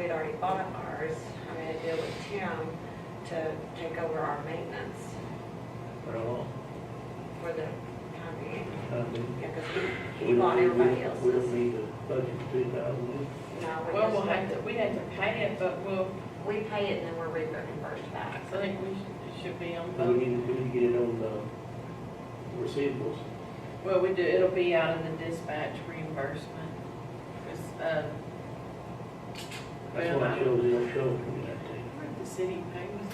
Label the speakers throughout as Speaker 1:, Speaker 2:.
Speaker 1: already bought ours, having a deal with Tim to take over our maintenance
Speaker 2: for a long
Speaker 1: for the time being.
Speaker 2: time.
Speaker 1: Yeah, because he,
Speaker 2: We
Speaker 1: he bought
Speaker 2: don't-
Speaker 1: everybody
Speaker 2: We don't
Speaker 1: else's.
Speaker 2: need a budget of two thousand.
Speaker 1: No, we
Speaker 3: Well, we'll
Speaker 1: just-
Speaker 3: have to, we have to pay it, but we'll,
Speaker 1: we pay it and then we're reimbursed back.
Speaker 3: I think we should- should be on
Speaker 2: We
Speaker 3: both.
Speaker 2: need to, we need to get it on the receivables.
Speaker 3: Well, we do, it'll be out of the dispatch reimbursement. 'Cause, uh,
Speaker 2: That's
Speaker 3: Well,
Speaker 2: why
Speaker 3: I-
Speaker 2: it shows, it'll show from that thing.
Speaker 3: where did the city pays,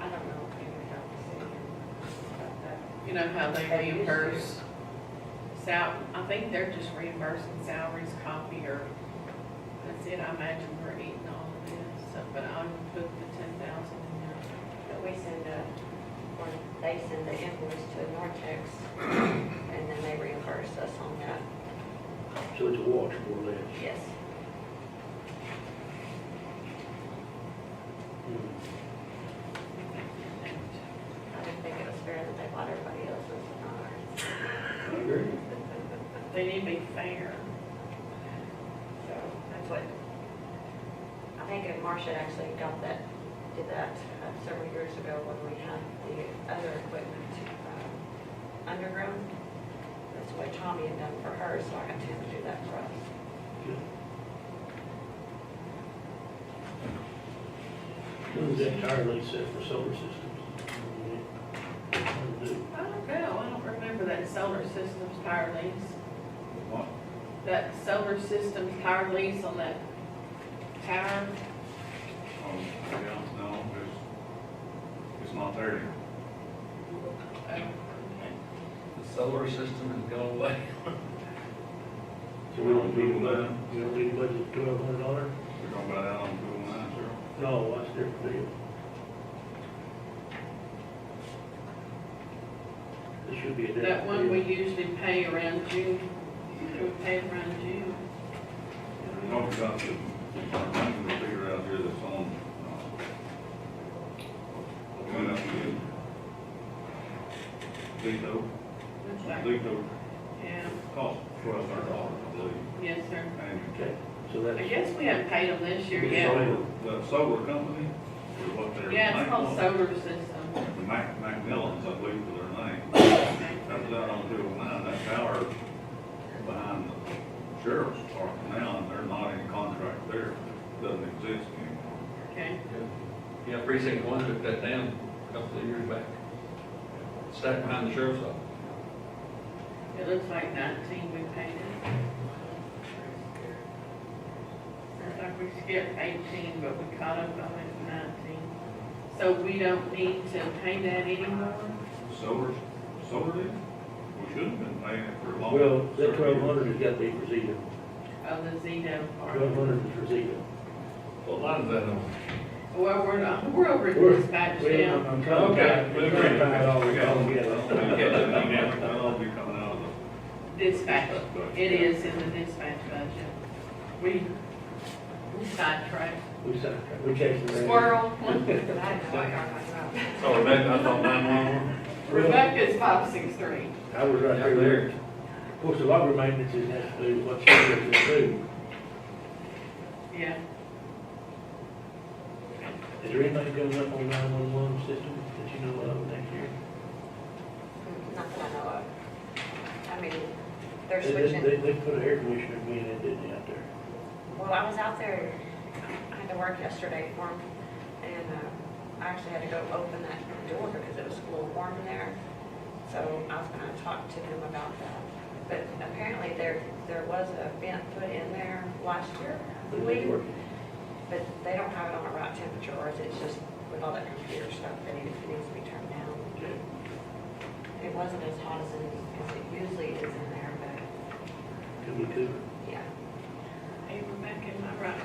Speaker 1: I don't know if we have to see about that.
Speaker 3: you know how they
Speaker 1: They used
Speaker 3: reimburse sal, I think they're just reimbursing salaries, copy, or, that's it, I imagine we're eating all of this, so, but I would put the ten thousand in there.
Speaker 1: But we send a, or they send the invoice to Nortex, and then they reimburse us on that.
Speaker 2: So it's a wash more or less.
Speaker 1: Yes.
Speaker 2: Hmm.
Speaker 1: I didn't think it was fair that they bought everybody else's and ours.
Speaker 2: I agree.
Speaker 3: They need to be fair.
Speaker 1: So that's what, I think if Marcia actually got that, did that uh, several years ago when we had the other equipment um, underground. That's what Tommy had done for her, so I got him to do that for us.
Speaker 2: Who's entirely set for solar systems?
Speaker 3: I don't know, I don't remember that solar systems power lease,
Speaker 4: What?
Speaker 3: that solar systems power lease on that tower.
Speaker 4: Oh, yeah, no, it's, it's not there.
Speaker 5: The solar system has gone away.
Speaker 2: So we don't need a budget, we don't need a budget twelve hundred dollars?
Speaker 4: We're going about out on Google Maps here.
Speaker 2: No, that's different deal. It should be a different.
Speaker 3: That one we
Speaker 2: deal.
Speaker 3: usually pay around June, we pay around June.
Speaker 4: We're going to got the, our money to figure out here that's on, uh, coming up again. Lito,
Speaker 3: Looks like-
Speaker 4: Lito
Speaker 3: Yeah,
Speaker 4: cost twelve hundred dollars, I believe.
Speaker 3: yes, sir.
Speaker 4: And
Speaker 2: Okay, so that's.
Speaker 3: I guess we haven't paid them this year
Speaker 4: the
Speaker 3: yet.
Speaker 4: solar- The solar company is what they're.
Speaker 3: Yeah, it's called
Speaker 4: named
Speaker 3: solar system.
Speaker 4: on. The Mac, Macmillans, I believe, is their name. Comes out on two oh nine, that tower behind the sheriff's department now, and they're not in contract there, doesn't exist anymore.
Speaker 3: Okay,
Speaker 5: Yeah, precinct one took that down a couple of years back. Stacked behind the sheriff's office.
Speaker 3: it looks like nineteen we paid it. Sounds like we skipped eighteen, but we caught up on it in nineteen. So we don't need to pay that anymore?
Speaker 4: Solar, solar did, we should have been paying it for a long.
Speaker 2: Well, that twelve hundred has got to be for Zeta.
Speaker 3: Oh, the Zedo part.
Speaker 2: Twelve hundred is for Zeta.
Speaker 5: What line is that on?
Speaker 3: Well, we're not, we're over at
Speaker 2: We're-
Speaker 3: dispatch
Speaker 2: Well,
Speaker 3: now.
Speaker 2: I'm trying to
Speaker 5: Okay,
Speaker 2: find-
Speaker 5: we're
Speaker 2: trying to
Speaker 5: ready.
Speaker 2: find it all
Speaker 4: We got, we
Speaker 2: together.
Speaker 4: got, that'll be coming out of the.
Speaker 3: Dispatch,
Speaker 4: budget.
Speaker 3: it is in the dispatch budget. We, we sidetracked.
Speaker 2: We sidetracked, we chased the. rabbit.
Speaker 3: Squirrel.
Speaker 1: I had no idea what I was about.
Speaker 5: Sorry, that, I thought nine one one.
Speaker 3: Rebecca's five six three.
Speaker 2: I was right
Speaker 5: Right there.
Speaker 2: there. Of course, the logger maintenance is has to do what solar is gonna do.
Speaker 3: Yeah,
Speaker 2: Is there anything coming up on nine one one system that you know of next year?
Speaker 1: Not that I know of. I mean, they're
Speaker 2: They- they- They,
Speaker 1: switching,
Speaker 2: they put an air conditioner being in, didn't they, out there?
Speaker 1: well, I was out there, I had to work yesterday for 'em, and uh, I actually had to go open that door because it was a little warm in there. So I was gonna talk to them about that. But apparently there, there was a vent put in there last year, I
Speaker 2: Did they
Speaker 1: believe,
Speaker 2: work?
Speaker 1: but they don't have it on the right temperature, or is it just with all that computer stuff, that it needs to be turned down?
Speaker 2: Okay.
Speaker 1: It wasn't as hot as it, as it usually is in there, but
Speaker 2: Could be two.
Speaker 1: yeah.
Speaker 3: hey Rebecca, am I right Um,